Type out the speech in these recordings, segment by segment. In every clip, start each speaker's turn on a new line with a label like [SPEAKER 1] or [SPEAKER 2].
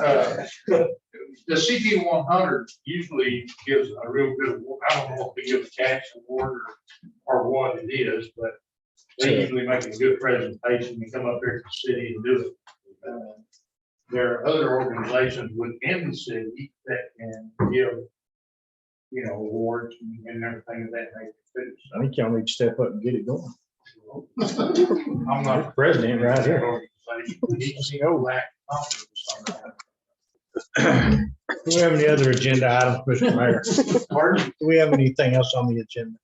[SPEAKER 1] uh, The CP one hundred usually gives a real good, award. I don't know if they give a tax award or, or what it is, but they usually make a good presentation, they come up here to the city and do it. Uh, There are other organizations within the city that can give, you know, awards and everything of that nature.
[SPEAKER 2] I think y'all need to step up and get it going.
[SPEAKER 1] too, so. I'm not
[SPEAKER 2] President right here.
[SPEAKER 1] oh,
[SPEAKER 2] Do we have any other agenda items, Mr. Mayor?
[SPEAKER 1] Pardon?
[SPEAKER 2] Do we have anything else on the agenda?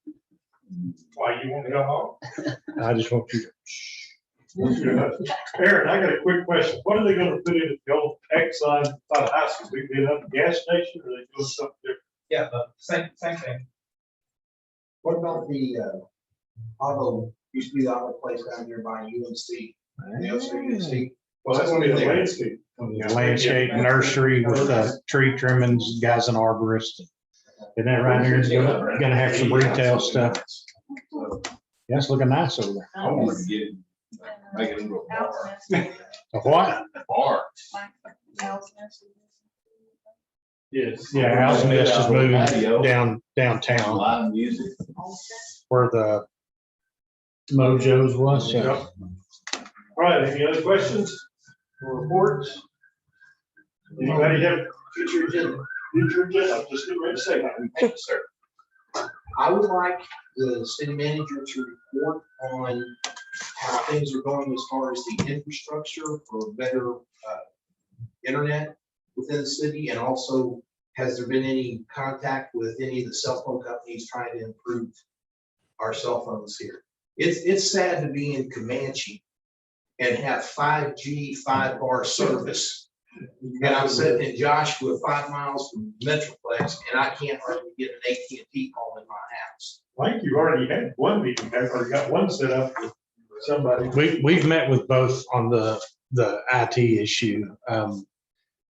[SPEAKER 1] Why you want to go home?
[SPEAKER 2] I just want you,
[SPEAKER 3] Aaron, I got a quick question. What are they gonna put in the old X sign by the high school? We did up the gas station or they do something different?
[SPEAKER 4] Yeah, the same, same thing.
[SPEAKER 5] What about the uh, auto, used to be the auto place down here by UNC,
[SPEAKER 2] Ah.
[SPEAKER 5] the old UNC?
[SPEAKER 3] Well, that's gonna be the landscape.
[SPEAKER 2] to- landscape nursery with uh, tree trimmings, guys and arborists. Isn't that right there? It's gonna, gonna have some retail stuff. Yeah, it's looking nice over there.
[SPEAKER 6] I wanted
[SPEAKER 7] Um,
[SPEAKER 6] to get, make it into a bar.
[SPEAKER 2] A what?
[SPEAKER 6] Bar.
[SPEAKER 3] Yes.
[SPEAKER 2] Yeah, House Nest is moving
[SPEAKER 6] Patio.
[SPEAKER 2] down downtown
[SPEAKER 6] Live music.
[SPEAKER 2] where the Mojo's was.
[SPEAKER 3] Yep. All right, any other questions or reports? Anybody have future agenda? Future agenda, I'm just getting ready to say. Thank you, sir.
[SPEAKER 5] I would like the city manager to report on how things are going as far as the infrastructure for better uh, internet within the city, and also has there been any contact with any of the cell phone companies trying to improve our cell phones here? It's, it's sad to be in Comanche and have five G, five bar service. And I'm sitting in Joshua, five miles from Metroplex, and I can't hardly get an AT&T call in my house.
[SPEAKER 3] Mike, you already had one meeting, or you got one set up with somebody.
[SPEAKER 2] We, we've met with both on the, the IT issue. Um,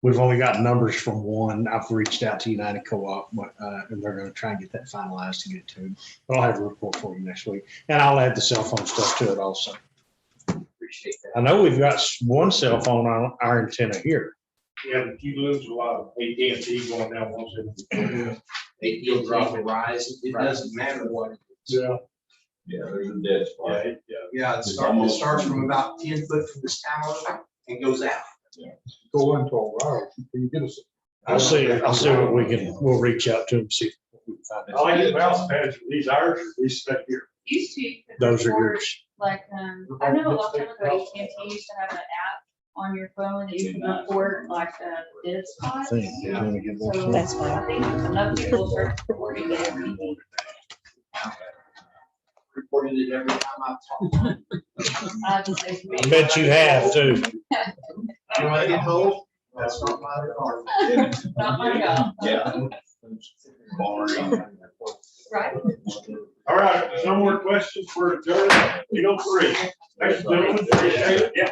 [SPEAKER 2] We've only got numbers from one. I've reached out to United Co-op, uh, and they're gonna try and get that finalized to get it to them. But I'll have a report for you next week, and I'll add the cell phone stuff to it also.
[SPEAKER 5] Appreciate that.
[SPEAKER 2] I know we've got s- one cell phone on our antenna here.
[SPEAKER 1] Yeah, but you lose a lot of AT&T going down one seventy.
[SPEAKER 5] AT&T, Verizon, it doesn't matter what. it is.
[SPEAKER 3] Yeah,
[SPEAKER 6] Yeah, there's a dead spot.
[SPEAKER 3] yeah, yeah.
[SPEAKER 5] Yeah, it starts, it starts from about ten foot from this tower and goes out.
[SPEAKER 3] Go into a route, you get us.
[SPEAKER 2] I'll see, I'll see what we can, we'll reach out to them, see. what we can find
[SPEAKER 3] I
[SPEAKER 2] out.
[SPEAKER 3] like the mouse pads, are these ours, or these stuck here.
[SPEAKER 7] Used to. you could
[SPEAKER 2] Those are
[SPEAKER 7] record,
[SPEAKER 2] yours.
[SPEAKER 7] Like, um, I know a long time ago, AT&T used to have an app on your phone that you can record like uh dead
[SPEAKER 2] I
[SPEAKER 7] spots.
[SPEAKER 2] think. Let me get one.
[SPEAKER 7] So
[SPEAKER 8] That's fine.
[SPEAKER 7] I think enough people start recording it.
[SPEAKER 5] Reported it every time I talk.
[SPEAKER 7] I just say,
[SPEAKER 2] I bet you have too.
[SPEAKER 5] You know, I get told, that's not my department.
[SPEAKER 7] Not my job.
[SPEAKER 6] Yeah. Bar.
[SPEAKER 7] Right?
[SPEAKER 3] All right, no more questions for adjourned, eight oh three. Thanks, gentlemen, appreciate it. Yeah.